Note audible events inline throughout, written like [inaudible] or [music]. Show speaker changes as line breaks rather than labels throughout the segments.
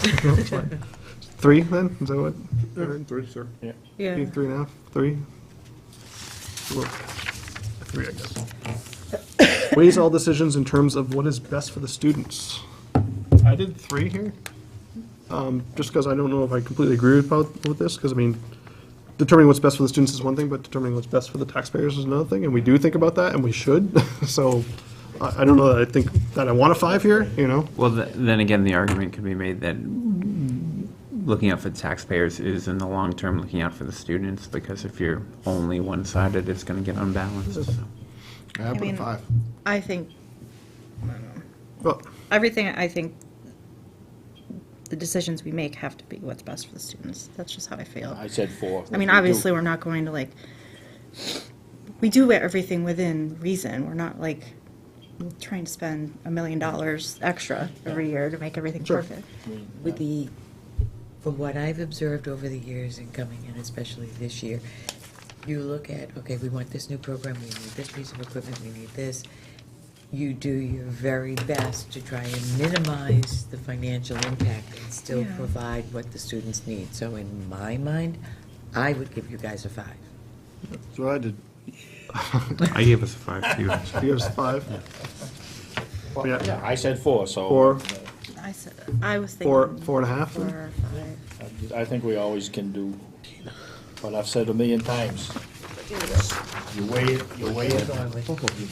That's fine. Three, then? Is that what?
Three, sir.
Three,
Yeah,
three and a half, three? Look, Three, I guess. Weighs all decisions in terms of what is best for the students. I did three here, um, just because I don't know if I completely agree about, with this, because I mean, determining what's best for the students is one thing, but determining what's best for the taxpayers is another thing, and we do think about that, and we should, [laughs] so I, I don't know that I think that I want a five here, you know?
Well, th- then again, the argument could be made that looking out for taxpayers is in the long term looking out for the students, because if you're only one-sided, it's gonna get unbalanced, so.
I put
mean-
a five.
I think,
Well,
everything, I think the decisions we make have to be what's best for the students. That's just how I feel.
I said four.
I mean,
You do.
obviously, we're not going to like, we do everything within reason. We're not like trying to spend a million dollars extra every year to make everything
Sure.
perfect.
With the, from what I've observed over the years and coming in, especially this year, you look at, okay, we want this new program, we need this piece of equipment, we need this. You do your very best to try and minimize the financial impact and still
Yeah.
provide what the students need. So in my mind, I would give you guys a five.
That's what I did.
I gave us a five, too.
he gives five. Yeah,
Yeah, I said four, so.
Four.
I said, I was thinking.
four, four and a half.
Four or five.
I think we always can do what I've said a million times. You weigh it, you weigh it, you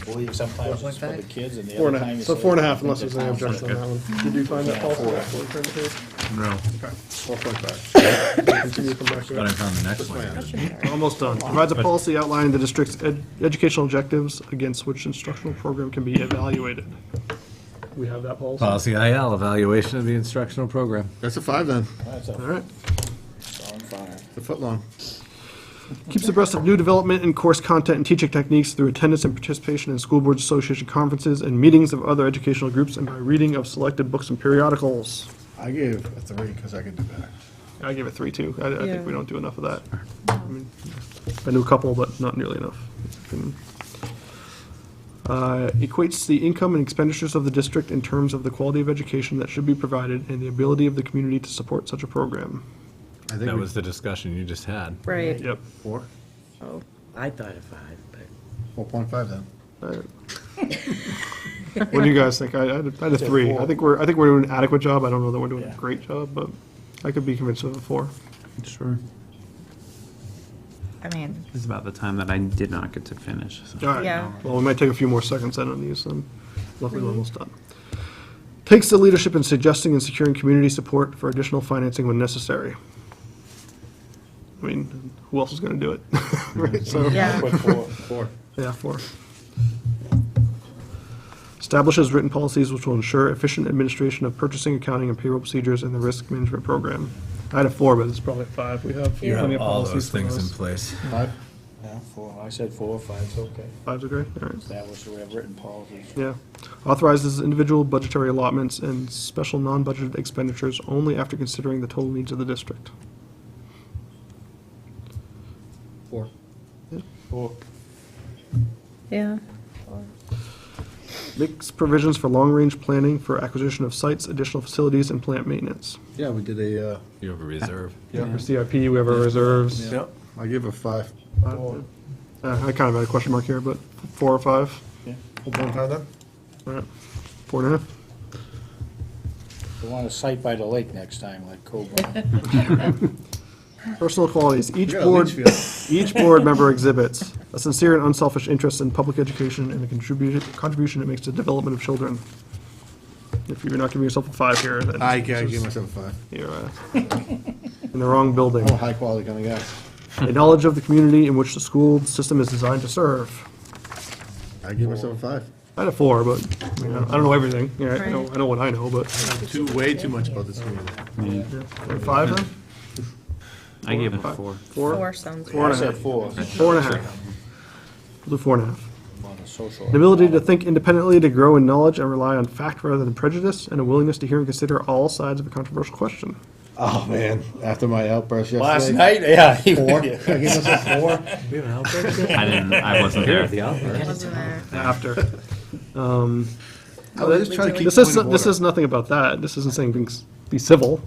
believe sometimes it's for the kids and the
Four and
other
a
time
half,
you
so
say,
four and a
I
half
think
unless there's any
that's not
objection on that one. Did you find that false?
No,
Four point five. Continue from back
but I
there.
found the next one.
Almost done. Provides a policy outlining the district's ed- educational objectives against which instructional program can be evaluated. We have that policy. All
Policy IL, evaluation of the instructional program.
That's a five then,
That's a
right.
strong five.
a foot long.
Keeps abreast of new development in course content and teaching techniques through attendance and participation in school boards association conferences and meetings of other educational groups and by reading of selected books and periodicals.
I gave a three because I could do better.
I give it three, too. I, I
Yeah.
think we don't do enough of that. I mean, I knew a couple, but not nearly enough. Uh, Equates the income and expenditures of the district in terms of the quality of education that should be provided and the ability of the community to support such a program.
I think
That
we-
was the discussion you just had.
Right.
Yep.
Four,
Oh,
I thought a five, but.
four point five then.
All right. What do you guys think? I, I had a- I had a three. I think we're, I think we're doing an adequate job. I don't know that we're doing a
Yeah.
great job, but I could be convinced of a four.
Sure.
I mean,
This is about the time that I did not get to finish, so.
All right.
yeah.
Well, we might take a few more seconds then on these, um, luckily we're almost done. Takes the leadership in suggesting and securing community support for additional financing when necessary. I mean, who else is gonna do it? [laughs] Right, so,
Yeah.
Put four, four.
yeah, four. Establishes written policies which will ensure efficient administration of purchasing, accounting, and payroll procedures in the risk management program. I had a four, but it's probably a five. We have
You
plenty of
have all those
policies for
things in
those.
place.
Five?
Yeah, four. I said four, five's okay.
Five's okay, all right.
That was, we have written policies.
Yeah. Authorizes individual budgetary allotments and special non-budgeted expenditures only after considering the total needs of the district.
Four.
Four.
Yeah.
Makes provisions for long-range planning for acquisition of sites, additional facilities, and plant maintenance.
Yeah, we did a, uh,
You have a reserve.
For CIP, we have our reserves.
yeah, I gave a five.
Uh, I kind of had a question mark here, but four or five?
Yeah.
Four point five then?
All right. Four and a half?
We want a site by the lake next time, like Cobra.
Personal qualities. Each
got a
board, [laughs]
leach
each board member exhibits a sincere and unselfish interest in public education and the contribution, contribution it makes to the development of children. If you're not giving yourself a five here, then.
I gave myself a five.
You're uh, [laughs] in the wrong building.
I'm a high quality kind of
A knowledge of the community in which the school system is designed to serve.
guy. I gave myself a five.
I had a four, but I mean, I don't know everything. Yeah, I know, I know what I know, but
Too, way too much about this community.
Or five then?
I gave it a
Five?
four.
Four
Four?
sounds.
Four
I
and a
said
half.
four.
Four and a half. Blue four and a half.
On the social.
An ability to think independently, to grow in knowledge and rely on fact rather than prejudice, and a willingness to hear and consider all sides of a controversial question.
Oh, man, after my outburst yesterday.
Last night, yeah. [laughs] he-
Four, I gave myself a four.
I didn't, I wasn't there.
Wasn't there?
After.
I was just trying to keep
This
point
is,
of
this
order.
is nothing about that. This isn't saying being s- be civil.